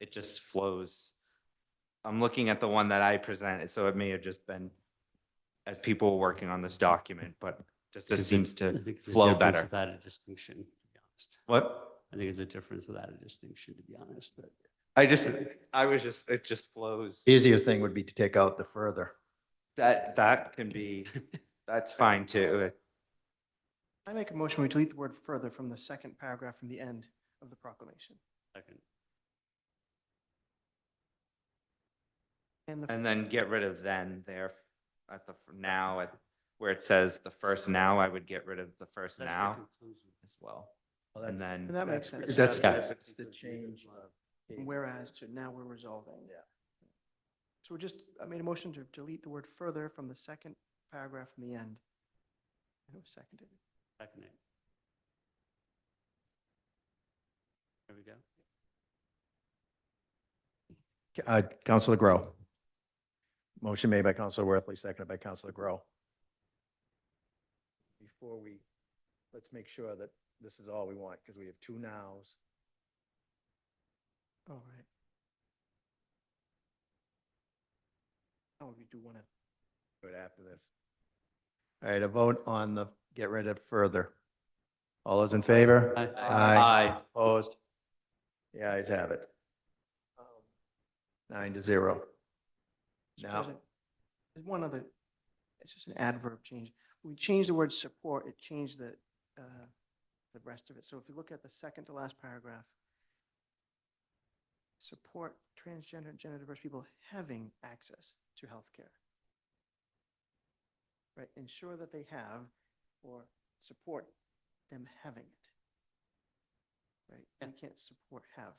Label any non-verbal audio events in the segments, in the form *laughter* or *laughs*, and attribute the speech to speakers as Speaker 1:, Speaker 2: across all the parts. Speaker 1: it just flows. I'm looking at the one that I presented, so it may have just been as people were working on this document, but just this
Speaker 2: Because it-
Speaker 1: seems
Speaker 2: I
Speaker 1: to
Speaker 2: think it's a
Speaker 1: flow
Speaker 2: difference
Speaker 1: better.
Speaker 2: Without a distinction, to be honest.
Speaker 1: What?
Speaker 2: I think it's a difference without a distinction, to be honest, but
Speaker 1: I just, I was just, it just flows.
Speaker 3: Easier thing would be to take out the further.
Speaker 1: That, that can
Speaker 2: *laughs*
Speaker 1: be, that's fine too.
Speaker 4: I make a motion, we delete the word further from the second paragraph from the end of the proclamation.
Speaker 2: second,
Speaker 4: And the,
Speaker 1: And then get rid of then there at the f- now, at where it says the first now, I would get rid of the first
Speaker 2: that's the
Speaker 1: now
Speaker 2: conclusion.
Speaker 1: as well. And then.
Speaker 4: and that makes sense.
Speaker 3: That's,
Speaker 1: Yeah.
Speaker 3: that's the change.
Speaker 4: From Whereas to now we're resolving.
Speaker 3: Yeah.
Speaker 4: So we're just, I made a motion to delete the word further from the second paragraph from the end. And it was seconded.
Speaker 2: Second it. There we go.
Speaker 3: Uh, Counselor Grow. Motion made by Counselor Worthley, seconded by Counselor Grow. Before we, let's make sure that this is all we want, because we have two nows.
Speaker 4: All right. Oh, we do want to,
Speaker 3: Right after this. All right, a vote on the get rid of further. All those in favor?
Speaker 2: Aye.
Speaker 3: Aye. Opposed? The ayes have it. Nine to zero.
Speaker 4: Mr.
Speaker 3: No.
Speaker 4: President, there's one other, it's just an adverb change. When We changed the word support, it changed the, uh, the rest of it. So if you look at the second to last paragraph, support transgender and gender diverse people having access to healthcare. Right, ensure that they have or support them having it. Right, and can't support have.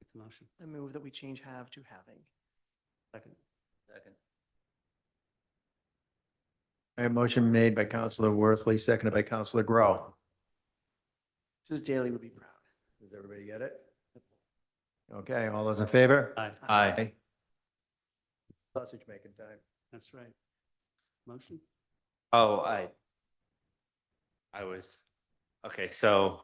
Speaker 2: Make the motion,
Speaker 4: I move that we change have to having.
Speaker 2: second. Second.
Speaker 3: All right, motion made by Counselor Worthley, seconded by Counselor Grow.
Speaker 4: Mrs. Daly would be proud.
Speaker 3: Does everybody get it? Okay, all those in favor?
Speaker 2: Aye,
Speaker 1: Aye.
Speaker 3: Sausage making time.
Speaker 2: that's right. Motion,
Speaker 1: Oh, I. I was, okay, so,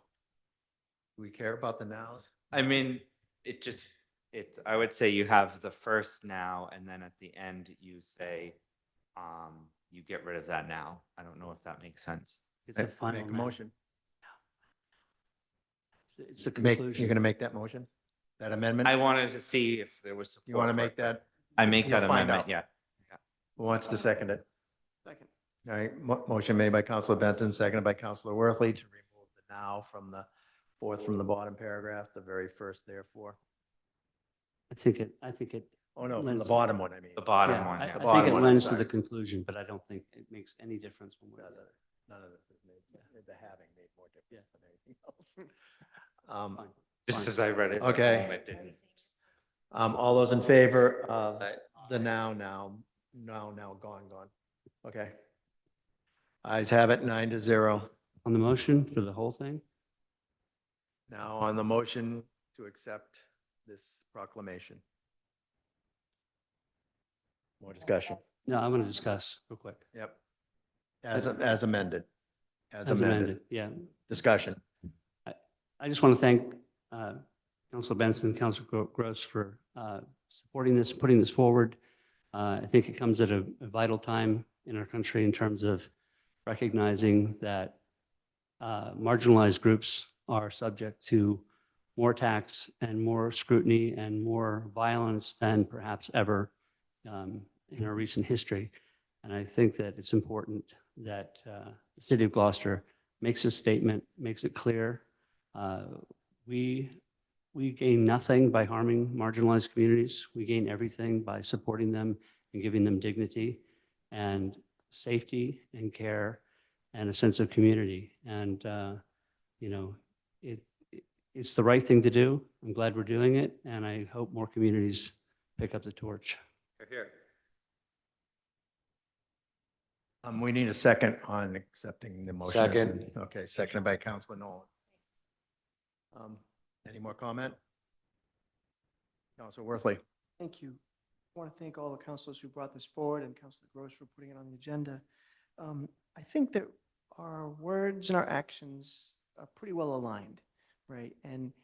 Speaker 3: Do we care about the nows?
Speaker 1: I mean, it just, it's, I would say you have the first now, and then at the end you say, um, you get rid of that now. I don't know if that makes sense.
Speaker 2: it's the final.
Speaker 3: Make a
Speaker 2: now.
Speaker 3: motion.
Speaker 2: It's the- It's the
Speaker 3: Make,
Speaker 2: conclusion.
Speaker 3: you're gonna make that motion? That amendment?
Speaker 1: I wanted to see if there was.
Speaker 3: You want
Speaker 1: support
Speaker 3: to
Speaker 1: for
Speaker 3: make
Speaker 1: it.
Speaker 3: that?
Speaker 1: I make that
Speaker 3: You'll find
Speaker 1: amendment,
Speaker 3: out.
Speaker 1: yeah.
Speaker 3: Who wants to second it?
Speaker 4: Second.
Speaker 3: All right, mo- motion made by Counselor Benton, seconded by Counselor Worthley to remove the now from the fourth from the bottom paragraph, the very first therefore.
Speaker 2: I think it, I think it.
Speaker 3: Oh, no, from the
Speaker 2: Lens.
Speaker 3: bottom one, I mean.
Speaker 1: The bottom
Speaker 2: yeah,
Speaker 1: one,
Speaker 2: I-
Speaker 1: yeah.
Speaker 2: I
Speaker 3: Bottom
Speaker 2: think it
Speaker 3: one, I'm
Speaker 2: lends to the
Speaker 3: sorry.
Speaker 2: conclusion, but I don't think it makes any difference one way or
Speaker 3: None
Speaker 2: the
Speaker 3: of
Speaker 2: other.
Speaker 3: this has made, the having made more difference than anything else. Um,
Speaker 2: Fine.
Speaker 1: Just
Speaker 2: Fine.
Speaker 1: as I read it.
Speaker 3: Okay.
Speaker 1: it didn't-
Speaker 3: um, all those in favor of
Speaker 1: Aye.
Speaker 3: the now, now, now, now, gone, gone. Okay. Eyes have it, nine to zero.
Speaker 2: On the motion for the whole thing?
Speaker 3: Now on the motion to accept this proclamation. More discussion.
Speaker 2: No, I want to discuss real quick.
Speaker 3: Yep. As, as amended. As
Speaker 2: As
Speaker 3: amended.
Speaker 2: amended, yeah.
Speaker 3: Discussion.
Speaker 2: I just want to thank uh, Council Benson, Council Gro- Gross for uh, supporting this, putting this forward. Uh, I think it comes at a a vital time in our country in terms of recognizing that uh, marginalized groups are subject to more tax and more scrutiny and more violence than perhaps ever um, in our recent history. And I think that it's important that uh, the city of Gloucester makes a statement, makes it clear uh, We, we gain nothing by harming marginalized communities. We gain everything by supporting them and giving them dignity and safety and care and a sense of community. And, uh, you know, it, it- it's the right thing to do. I'm glad we're doing it, and I hope more communities pick up the torch.
Speaker 3: Um, we need a second on accepting the motion. as amended. Okay, seconded by Councilor Nolan. Um, any more comment? Councilor Worthley.
Speaker 4: Thank you. I want to thank all the councilors who brought this forward and Councilor Gross for putting it on the agenda. Um, I think that our words and our actions are pretty well aligned, right? And